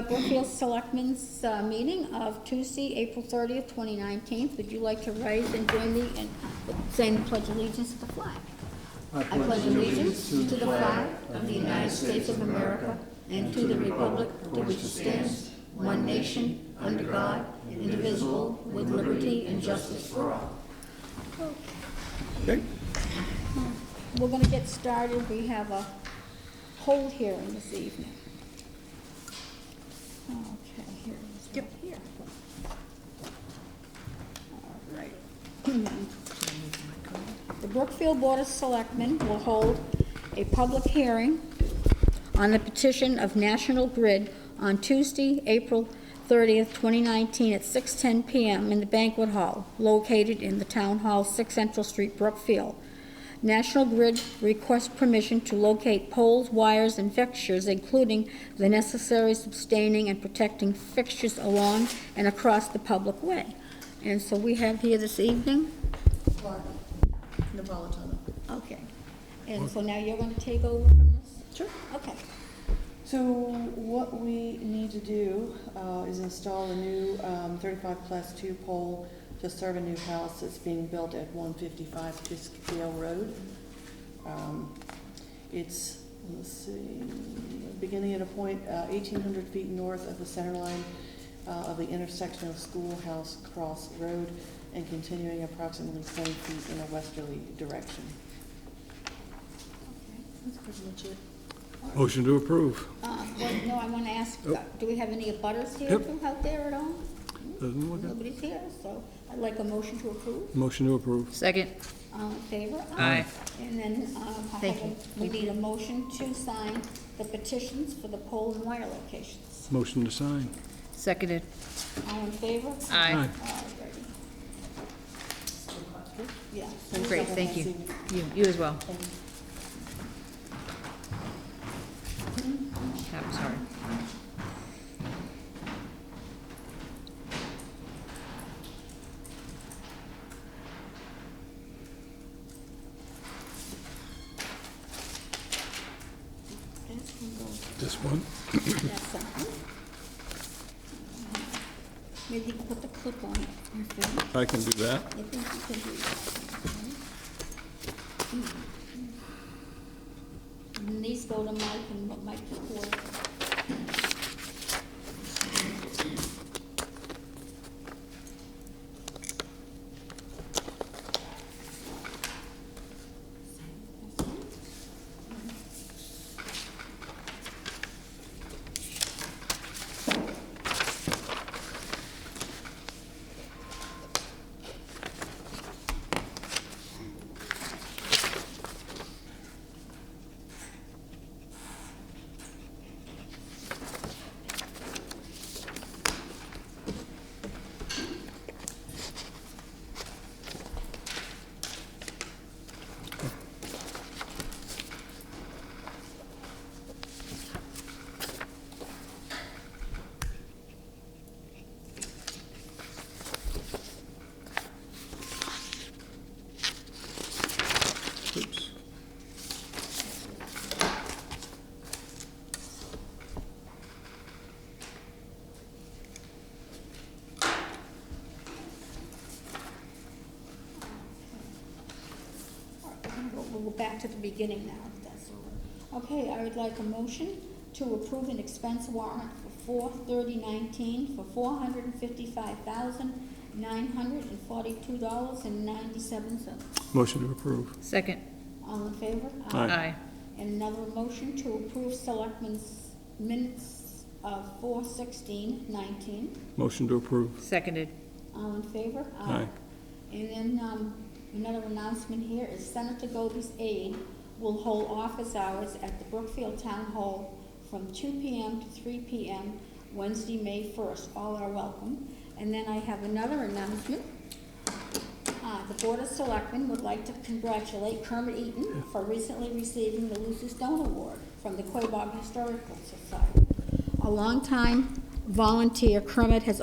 Annual uh, Selectmen's uh, Meeting of Tuesday, April 30th, 2019. Would you like to rise and join me in saying the pledge of allegiance to the flag? I I pledge allegiance to the flag of the United States of America and to the republic for which it stands, one nation, under God, indivisible, with liberty and justice for all. Okay. We're going to get started. We have a hold hearing this evening. Okay, here it is, right here. All right. The Brookfield Board of Selectmen will hold a public hearing on the petition of National Grid on Tuesday, April 30th, 2019, at 6:10 PM in the banquet hall located in the Town Hall, 6 Central Street, Brookfield. National Grid requests permission to locate poles, wires, and fixtures, including the necessary sustaining and protecting fixtures along and across the public way. And so we have here this evening, Napolitano. okay. And so now you're going to take over from this? Sure. Okay. So what we need to do uh, is install a new um, 35 plus 2 pole to serve a new house that's being built at 155 Fiskdale Road. Um, It's, let's see, beginning at a point uh, 1,800 feet north of the center line uh, of the intersection of Schoolhouse Cross Road and continuing approximately 20 feet in a westerly direction. That's pretty much it. Motion to approve. Uh, well, no, I want to ask, uh, do we have any butters here Yep. from out there at all? Doesn't look it. Nobody's here, so I'd like a motion to approve. Motion to approve. Second. All in favor? Aye. And then, um, I Thank have a- we need a motion to sign the petitions for the pole and wire locations. Motion to sign. Seconded. All in favor? Aye. Alrighty. Yeah. Great, thank you. You, you as well. I'm Ah, sorry. That's gonna go This one? That's something. Maybe you can put the clip on it. You think- I can do that. you think you can do that? okay? And these go to Mike and what Mike records. Oops. All right, we're gonna go- We'll go back to the beginning now, if that's all right. Okay, I would like a motion to approve an expense warrant for four thirty nineteen for four hundred and fifty-five thousand, nine hundred and forty-two dollars and ninety-seven cents. Motion to approve. Second. All in favor? Aye. And another motion to approve selectmen's minutes of four sixteen nineteen. Motion to approve. Seconded. All in favor? Aye. And then, um, another announcement here is Senator Goby's aide will hold office hours at the Brookfield Town Hall from two PM to three PM, Wednesday, May first. All are welcome. And then I have another announcement. Uh, the Board of Selectmen would like to congratulate Kermit Eaton for recently receiving the Lucy Stone Award from the Quabog Historical Society. A longtime volunteer, Kermit has